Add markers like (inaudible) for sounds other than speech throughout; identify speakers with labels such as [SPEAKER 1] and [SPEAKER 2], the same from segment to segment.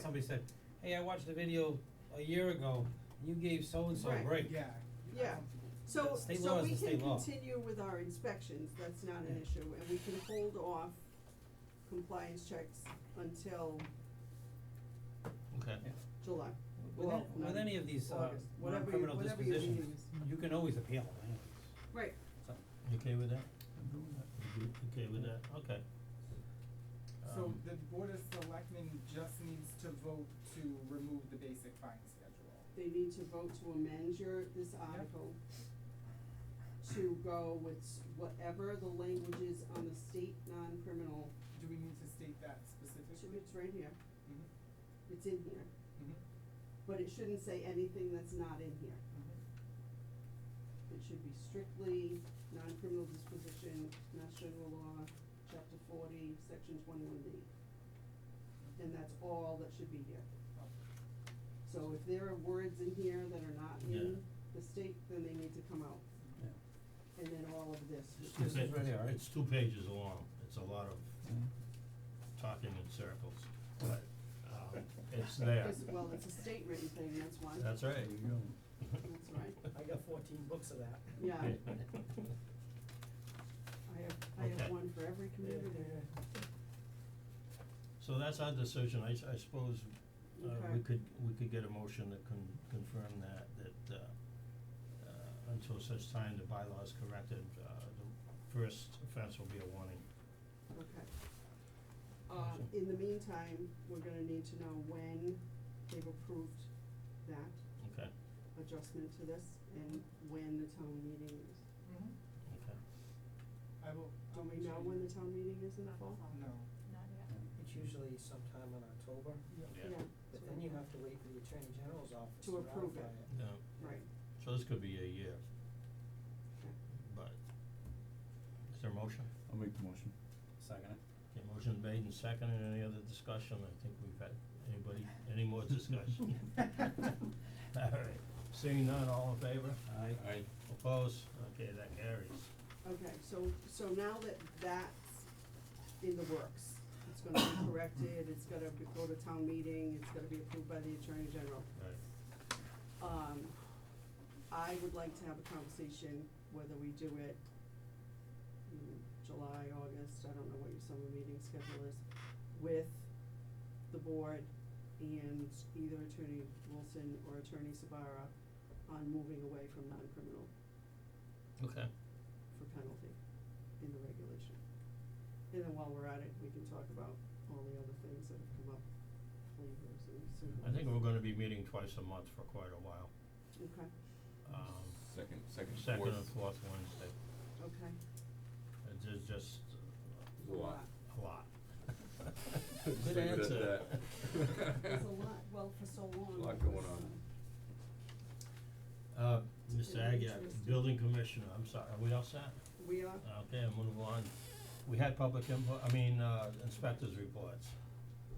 [SPEAKER 1] somebody said, hey, I watched the video a year ago, you gave so-and-so a
[SPEAKER 2] Right.
[SPEAKER 1] break.
[SPEAKER 3] Yeah.
[SPEAKER 2] Yeah. So,
[SPEAKER 1] State law
[SPEAKER 2] so
[SPEAKER 1] is
[SPEAKER 2] we
[SPEAKER 1] the
[SPEAKER 2] can
[SPEAKER 1] state law.
[SPEAKER 2] continue with our inspections, that's not an
[SPEAKER 1] Yeah.
[SPEAKER 2] issue, and we can hold off compliance checks until
[SPEAKER 4] Okay.
[SPEAKER 1] Yeah.
[SPEAKER 2] July.
[SPEAKER 1] With,
[SPEAKER 2] Well,
[SPEAKER 1] an- with
[SPEAKER 2] not
[SPEAKER 1] any of these, uh,
[SPEAKER 2] August, whatever your-
[SPEAKER 1] criminal
[SPEAKER 2] whatever your
[SPEAKER 1] dispositions,
[SPEAKER 2] meeting is.
[SPEAKER 1] you can always appeal them anyways,
[SPEAKER 2] Right,
[SPEAKER 1] so.
[SPEAKER 4] You okay with that? I'm good with that. okay with that, okay.
[SPEAKER 3] So
[SPEAKER 4] Um,
[SPEAKER 3] the board of selectmen just needs to vote to remove the basic fine schedule.
[SPEAKER 2] they need to vote to amend your, this article to go with s- whatever the language is on the state non-criminal,
[SPEAKER 3] Do we need to state that
[SPEAKER 2] it's
[SPEAKER 3] specifically?
[SPEAKER 2] it's right here,
[SPEAKER 3] Mhm,
[SPEAKER 2] it's in here,
[SPEAKER 3] mhm,
[SPEAKER 2] but it shouldn't say anything that's not in here.
[SPEAKER 3] mhm.
[SPEAKER 2] It should be strictly non-criminal disposition, Mass General Law, Chapter forty, Section twenty-one D. And that's all that should be here.
[SPEAKER 3] Oh,
[SPEAKER 2] So if there are words in here that are not in
[SPEAKER 4] Yeah.
[SPEAKER 2] the state, then they need to come out,
[SPEAKER 1] Yeah.
[SPEAKER 2] and then all of this.
[SPEAKER 4] It's two
[SPEAKER 1] This is
[SPEAKER 4] pa-
[SPEAKER 1] right here, right?
[SPEAKER 4] it's two pages long, it's a lot of talking in circles, but, um, it's there,
[SPEAKER 2] Because, well, it's a state written thing, that's why, that's
[SPEAKER 4] that's right.
[SPEAKER 2] right,
[SPEAKER 5] I got fourteen books of that.
[SPEAKER 2] yeah, I
[SPEAKER 4] Okay.
[SPEAKER 2] have, I have
[SPEAKER 4] Okay.
[SPEAKER 2] one for every community.
[SPEAKER 4] (laughs) So that's our decision, I s- I suppose, uh, we
[SPEAKER 2] Okay.
[SPEAKER 4] could, we could get a motion that can confirm that, that, uh, uh, until such time the bylaw is corrected, uh, the first offense will be a warning.
[SPEAKER 2] Okay. Uh, in the meantime, we're gonna need to know when they've approved that.
[SPEAKER 4] Okay,
[SPEAKER 2] adjustment to this and when the town meeting is.
[SPEAKER 3] mhm.
[SPEAKER 4] okay.
[SPEAKER 3] I will.
[SPEAKER 2] Do
[SPEAKER 3] I'll
[SPEAKER 2] we
[SPEAKER 3] make
[SPEAKER 2] know
[SPEAKER 3] sure
[SPEAKER 2] when
[SPEAKER 3] you-
[SPEAKER 2] the town meeting is in the fall?
[SPEAKER 3] No.
[SPEAKER 6] Not yet.
[SPEAKER 5] It's usually sometime in October,
[SPEAKER 4] Yeah.
[SPEAKER 5] but then you have to wait for the Attorney General's office
[SPEAKER 2] To
[SPEAKER 5] to ratify it.
[SPEAKER 2] approve it.
[SPEAKER 4] No,
[SPEAKER 2] Right,
[SPEAKER 4] so this could be a year,
[SPEAKER 2] okay.
[SPEAKER 4] but, is there a motion?
[SPEAKER 7] I'll make the motion.
[SPEAKER 1] Second it.
[SPEAKER 4] Okay, motion made and seconded, any other discussion, I think we've had, anybody, any more discussion? (laughs)
[SPEAKER 1] (laughs)
[SPEAKER 4] Alright, seeing none, all in favor?
[SPEAKER 1] Aye.
[SPEAKER 7] Aye.
[SPEAKER 4] Opposed? Okay, that carries.
[SPEAKER 2] Okay, so, so now that that's in the works, it's gonna be (coughs) corrected, it's gonna be- go to town meeting, it's gonna be approved by the Attorney General.
[SPEAKER 4] Right.
[SPEAKER 2] Um, I would like to have a conversation whether we do it in July, August, I don't know what your summer meeting schedule is, with the board and either Attorney Wilson or Attorney Sabara on moving away from non-criminal
[SPEAKER 4] Okay.
[SPEAKER 2] for penalty in the regulation. And then while we're at it, we can talk about all the other things that have come up, flavors and symbols.
[SPEAKER 4] I think we're gonna be meeting twice a month for quite a while,
[SPEAKER 2] Okay,
[SPEAKER 4] um,
[SPEAKER 7] Second, second, fourth.
[SPEAKER 4] second and fourth Wednesday,
[SPEAKER 2] okay.
[SPEAKER 4] it's ju- just
[SPEAKER 7] There's a lot.
[SPEAKER 4] a
[SPEAKER 7] (laughs)
[SPEAKER 4] lot.
[SPEAKER 7] Just
[SPEAKER 4] Good
[SPEAKER 7] leave it at
[SPEAKER 4] answer. (laughs)
[SPEAKER 2] (laughs)
[SPEAKER 7] that.
[SPEAKER 2] There's a lot, well, for so long.
[SPEAKER 7] Lot
[SPEAKER 2] it
[SPEAKER 7] going
[SPEAKER 2] was,
[SPEAKER 7] on.
[SPEAKER 2] uh,
[SPEAKER 4] Uh,
[SPEAKER 2] It's
[SPEAKER 4] Mr.
[SPEAKER 2] been
[SPEAKER 4] Agia,
[SPEAKER 2] interesting.
[SPEAKER 4] building commissioner, I'm sorry, are we all set?
[SPEAKER 2] uh, We are,
[SPEAKER 4] Okay, I'm gonna go on, we had public input, I mean, uh, inspectors reports,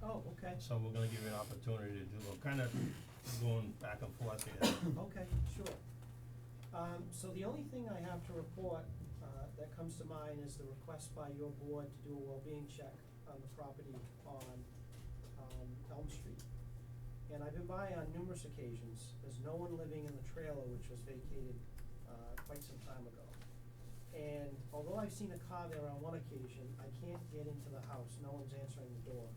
[SPEAKER 5] Oh, okay,
[SPEAKER 4] so we're gonna give you an opportunity to do, we're kinda going back and forth here.
[SPEAKER 5] okay, sure. Um, so the only thing I have to report, uh, that comes to mind is the request by your board to do a well-being check on the property on, um, Elm Street. And I've been by on numerous occasions, there's no one living in the trailer which was vacated, uh, quite some time ago. And although I've seen a car there on one occasion, I can't get into the house, no one's answering the door.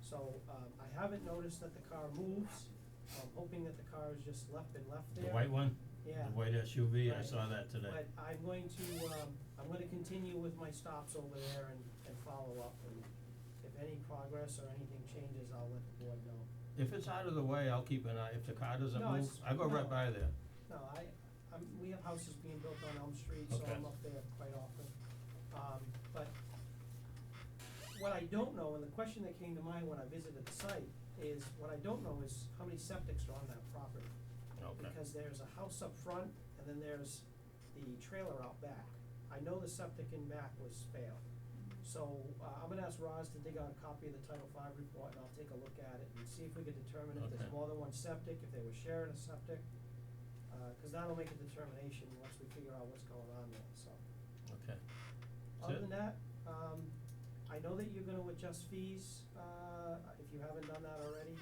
[SPEAKER 5] So, um, I haven't noticed that the car moves, I'm hoping that the car is just left and left
[SPEAKER 4] The
[SPEAKER 5] there.
[SPEAKER 4] white one?
[SPEAKER 5] Yeah.
[SPEAKER 4] The white SUV, I
[SPEAKER 5] Right.
[SPEAKER 4] saw that today.
[SPEAKER 5] But I'm going to, um, I'm gonna continue with my stops over there and, and follow up, and if any progress or anything changes, I'll let the board know.
[SPEAKER 4] If it's out of the way, I'll keep an eye, if the car doesn't
[SPEAKER 5] No,
[SPEAKER 4] move,
[SPEAKER 5] it's-
[SPEAKER 4] I go right
[SPEAKER 5] no.
[SPEAKER 4] by there.
[SPEAKER 5] No, I, I'm, we have houses being built on Elm Street, so
[SPEAKER 4] Okay.
[SPEAKER 5] I'm up there quite often, um, but what I don't know, and the question that came to mind when I visited the site, is what I don't know is how many septics are on that property.
[SPEAKER 4] Okay.
[SPEAKER 5] because there's a house up front and then there's the trailer out back. I know the septic in back was failed. So, uh, I'm gonna ask Roz to dig out a copy of the Title V report and I'll take a look at it and see if we can determine if
[SPEAKER 4] Okay.
[SPEAKER 5] there's more than one septic, if they were sharing a septic. Uh, 'cause that'll make a determination once we figure out what's going on there, so.
[SPEAKER 4] Okay. That's
[SPEAKER 5] Other
[SPEAKER 4] it?
[SPEAKER 5] than that, um, I know that you're gonna adjust fees, uh, if you haven't done that already.